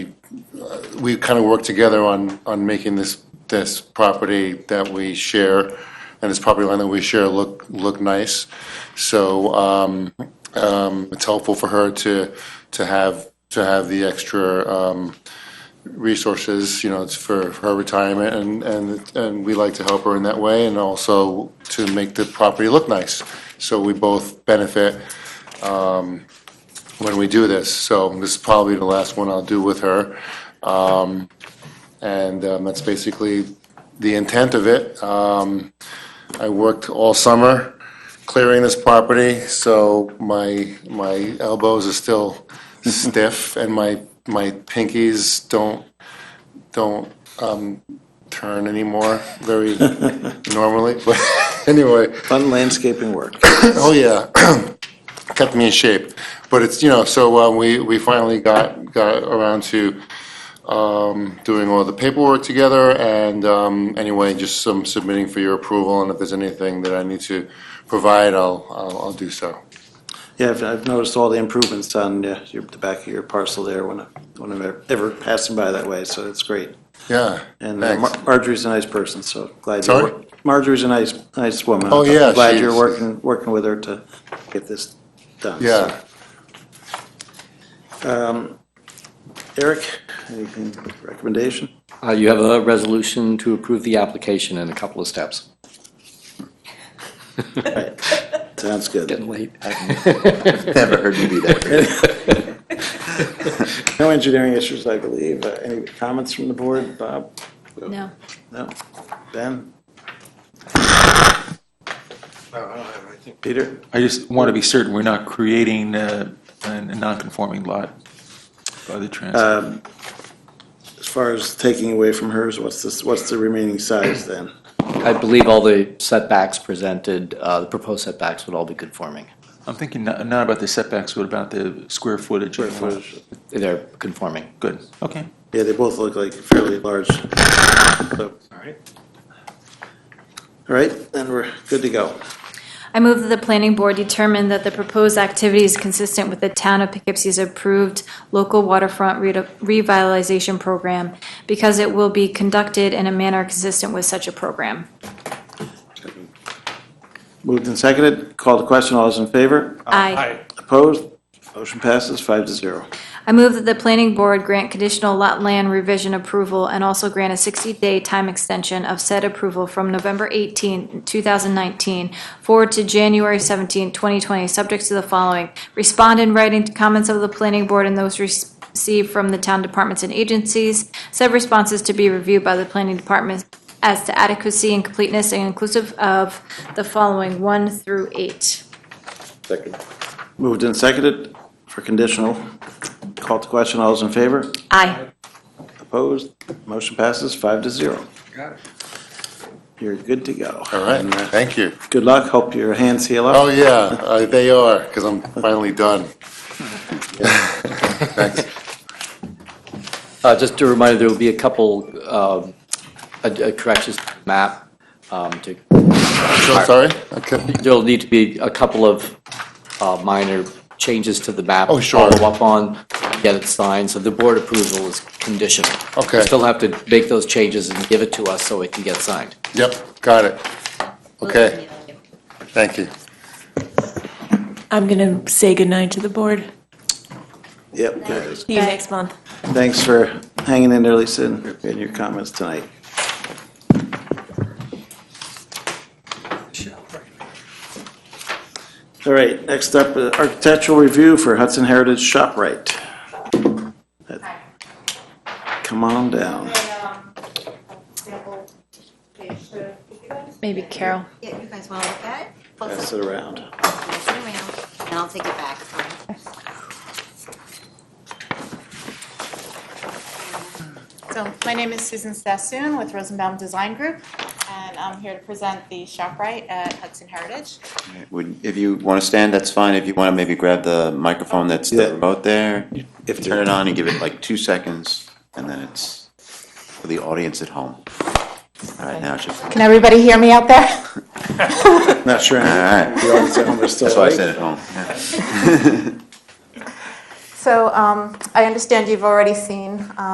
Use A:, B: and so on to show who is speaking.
A: we kind of worked together on, on making this, this property that we share and this property line that we share look, look nice. So, um, um, it's helpful for her to, to have, to have the extra, um, resources, you know, it's for her retirement and, and, and we like to help her in that way and also to make the property look nice. So we both benefit um, when we do this. So this is probably the last one I'll do with her. Um, And um, that's basically the intent of it. Um, I worked all summer clearing this property, so my, my elbows are still stiff and my, my pinkies don't, don't um, turn anymore very normally. But anyway,
B: Fun landscaping work.
A: Oh, yeah. Kept me in shape. But it's, you know, so uh, we, we finally got, got around to um, doing all the paperwork together. And um, anyway, just some submitting for your approval. And if there's anything that I need to provide, I'll, I'll, I'll do so.
B: Yeah, I've, I've noticed all the improvements on uh, your, the back of your parcel there when, I- when I'm ever- ever passing by that way, so it's great.
A: Yeah.
B: And uh, Mar-
A: thanks.
B: Marjorie's a nice person, so glad you're.
A: Sorry?
B: wor- Marjorie's a nice, nice woman.
A: Oh,
B: I'm
A: yeah,
B: Glad
A: she
B: you're
A: is.
B: working, working with her to get this done. so.
A: Yeah.
B: Eric, anything, recommendation?
C: Uh, You have a resolution to approve the application in a couple of steps.
B: Right. Sounds good.
C: late.
D: Never heard you do that.
B: No engineering issues, I believe. Uh, Any comments from the board? Bob?
E: No.
B: No? Ben? Peter?
F: I just want to be certain we're not creating uh, a a non-conforming lot by the trans.
B: As far as taking away from hers, what's this, what's the remaining size then?
C: I believe all the setbacks presented, uh, the proposed setbacks would all be conforming.
F: I'm thinking not not about the setbacks, but about the square footage. of the lot.
C: They're conforming.
F: Good, okay.
B: Yeah, they both look like fairly large. All right. All right, then we're good to go.
E: I move that the planning board determine that the proposed activity is consistent with the town of Poughkeepsie's approved local waterfront re- revitalization program because it will be conducted in a manner consistent with such a program.
B: Moved and seconded, called to question, all those in favor?
E: Aye.
B: Opposed? Motion passes five to zero.
E: I move that the planning board grant conditional lot land revision approval and also grant a 60-day time extension of said approval from November 18, 2019, forward to January 17, 2020, subject to the following. Respond in writing to comments of the planning board and those received from the town departments and agencies. Said responses to be reviewed by the planning department as to adequacy and completeness and inclusive of the following 1 through 8.
D: Second.
B: Moved and seconded for conditional, called to question, all those in favor?
E: Aye.
B: Opposed? Motion passes five to zero. Got it. You're good to go.
A: All right.
B: uh,
A: Thank you.
B: Good luck, hope your hands heal up.
A: Oh, yeah, uh, they are, because I'm finally done.
C: Uh, Just a reminder, there will be a couple um, a- a corrections to the map. um, to-
A: So sorry? Okay.
C: There'll need to be a couple of uh, minor changes to the map.
A: Oh,
C: to
A: sure.
C: Follow up on, get it signed, so the board approval is conditional.
A: Okay.
C: You Still have to make those changes and give it to us so it can get signed.
A: Yep, got it. Okay, thank you.
G: I'm going to say goodnight to the board.
B: Yep, guys.
G: See you next month.
B: Thanks for hanging in there, Lisa, and and your comments tonight. All right, next up, uh, architectural review for Hudson Heritage ShopRite. Come on down.
E: Maybe Carol.
H: Yeah, you guys want to look at it?
B: Pass it around.
H: Pass it around, and I'll take it back.
I: So my name is Susan Sassoon with Rosenbaum Design Group, and I'm here to present the ShopRite at Hudson Heritage.
D: Would, if you want to stand, that's fine. If you want to maybe grab the microphone that's
B: Yeah.
D: the remote there,
B: If
D: turn it on and give it like two seconds, and then it's for the audience at home. All right, now it should.
I: Can everybody hear me out there?
B: Not sure.
D: All right, that's
B: That's
D: why I said at home. yeah.
I: So um, I understand you've already seen